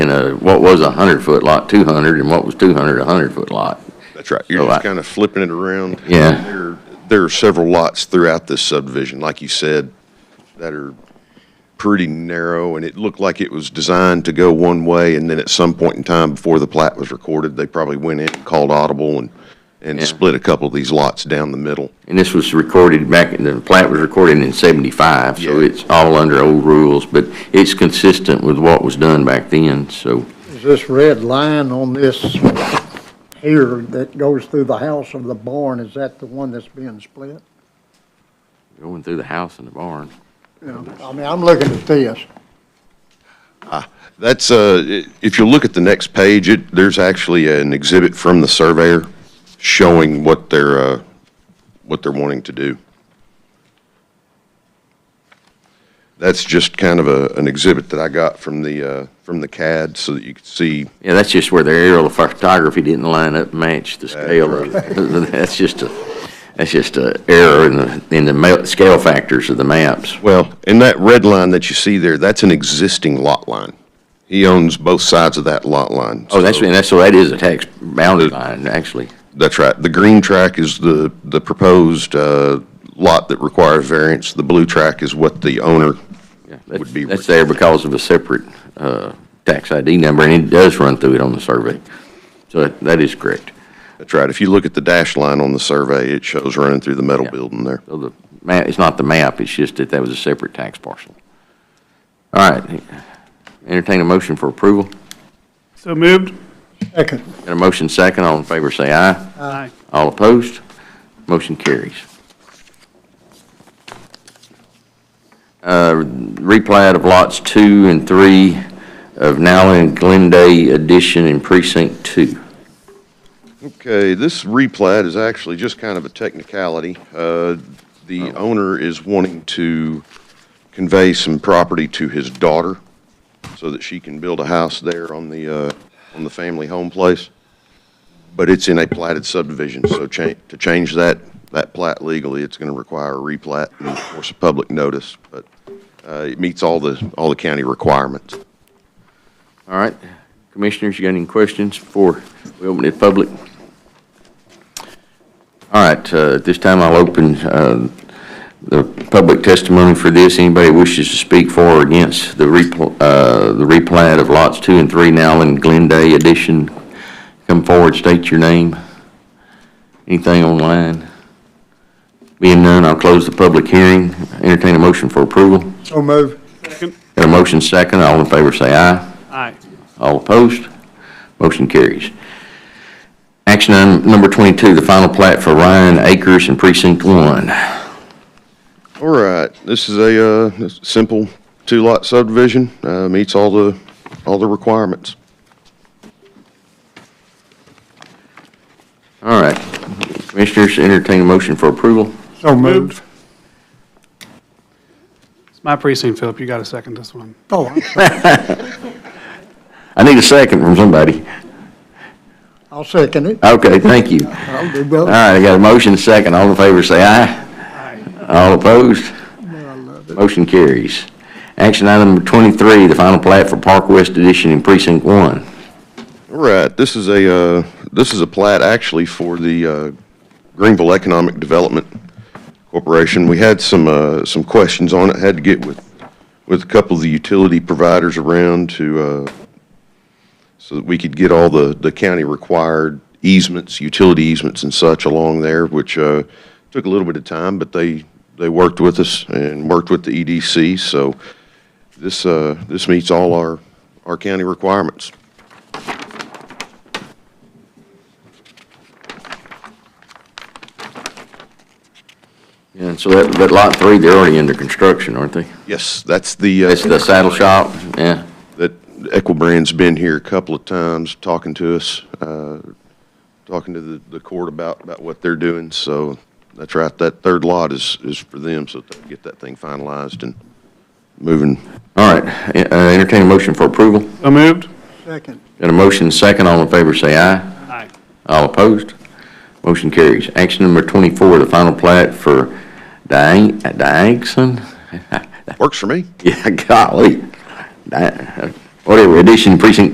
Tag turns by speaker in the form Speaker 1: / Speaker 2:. Speaker 1: a, what was a hundred foot lot, two hundred, and what was two hundred, a hundred foot lot.
Speaker 2: That's right. You're
Speaker 1: So
Speaker 2: just
Speaker 1: I-
Speaker 2: kind of flipping it around.
Speaker 1: Yeah.
Speaker 2: There, there are several lots throughout this subdivision, like you said, that are pretty narrow, and it looked like it was designed to go one way, and then at some point in time before the plat was recorded, they probably went in and called audible and, and
Speaker 1: Yeah.
Speaker 2: split a couple of these lots down the middle.
Speaker 1: And this was recorded back, the plat was recorded in seventy-five, so
Speaker 2: Yeah.
Speaker 1: it's all under old rules, but it's consistent with what was done back then, so.
Speaker 3: Is this red line on this here that goes through the house of the barn, is that the one that's being split?
Speaker 1: Going through the house and the barn.
Speaker 3: Yeah, I mean, I'm looking at this.
Speaker 2: That's, uh, i- if you look at the next page, it, there's actually an exhibit from the surveyor showing what they're, uh, what they're wanting to do. That's just kind of a, an exhibit that I got from the, uh, from the CAD so that you could see,
Speaker 1: Yeah, that's just where the aerial photography didn't line up, match the scale of, that's just a, that's just a error in the, in the ma- scale factors of the maps.
Speaker 2: well, and that red line that you see there, that's an existing lot line. He owns both sides of that lot line.
Speaker 1: Oh, that's,
Speaker 2: so-
Speaker 1: and that's, so that is a tax boundary line, actually.
Speaker 2: That's right. The green track is the, the proposed uh, lot that requires variance. The blue track is what the owner
Speaker 1: Yeah,
Speaker 2: would be.
Speaker 1: That's that's there because of a separate uh, tax ID number, and it does run through it on the survey. So that- that is correct.
Speaker 2: That's right. If you look at the dash line on the survey, it shows running through the metal
Speaker 1: Yeah.
Speaker 2: building there.
Speaker 1: So the map, it's not the map, it's just that that was a separate tax parcel. All right, entertain a motion for approval.
Speaker 4: So moved.
Speaker 3: Second,
Speaker 1: Got a motion second, all in favor say aye.
Speaker 4: Aye.
Speaker 1: All opposed, motion carries. Uh, Replat of lots two and three of Nowlin and Glenday Addition in Precinct Two.
Speaker 2: Okay, this replat is actually just kind of a technicality. Uh, The owner is wanting to convey some property to his daughter so that she can build a house there on the, uh, on the family home place. But it's in a platted subdivision, so cha- to change that, that plat legally, it's going to require a replat and of course a public notice. But uh, it meets all the, all the county requirements.
Speaker 1: All right, commissioners, you got any questions before we open it public? All right, uh, at this time, I'll open uh, the public testimony for this. Anybody wishes to speak for or against the repl- uh, the replat of lots two and three now in Glenday addition, come forward, state your name. Anything online? Being none, I'll close the public hearing, entertain a motion for approval.
Speaker 3: so move.
Speaker 4: Second.
Speaker 1: Got a motion second, all in favor say aye.
Speaker 4: Aye.
Speaker 1: All opposed? Motion carries. Action item number 22, the final plat for Ryan Acres in Precinct 1.
Speaker 2: All right, this is a, uh, s- simple two-lot subdivision, uh, meets all the, all the requirements.
Speaker 1: All right. Commissioners, entertain a motion for approval.
Speaker 3: So
Speaker 4: Moved.
Speaker 3: moved.
Speaker 4: It's my precinct, Philip. You got to second this one.
Speaker 3: Oh, I'm sorry.
Speaker 1: I need a second from somebody.
Speaker 3: I'll second it.
Speaker 1: Okay, thank you.
Speaker 3: I'll do
Speaker 1: All
Speaker 3: both.
Speaker 1: right, I got a motion second. All in favor, say aye.
Speaker 4: Aye.
Speaker 1: All opposed? Motion carries. Action item number 23, the final plat for Park West Edition in Precinct 1.
Speaker 2: All right, this is a, uh, this is a plat actually for the uh, Greenville Economic Development Corporation. We had some, uh, some questions on it, had to get with, with a couple of the utility providers around to, uh, so that we could get all the, the county required easements, utility easements and such along there, which uh, took a little bit of time, but they, they worked with us and worked with the EDC, so this, uh, this meets all our, our county requirements.
Speaker 1: And so that, that Lot 3, they're already under construction, aren't they?
Speaker 2: Yes, that's the. uh,
Speaker 1: That's the saddle shop, yeah.
Speaker 2: That Equibrand's been here a couple of times, talking to us, uh, talking to the, the court about, about what they're doing. So that's right, that third lot is, is for them, so they can get that thing finalized and moving.
Speaker 1: All right, uh, entertain a motion for approval.
Speaker 4: So moved.
Speaker 3: Second,
Speaker 1: Got a motion second, all in favor say aye.
Speaker 4: Aye.
Speaker 1: All opposed? Motion carries. Action number 24, the final plat for Diang- Diangson?
Speaker 2: Works for me.
Speaker 1: Yeah, golly. Di- uh, Whatever, addition precinct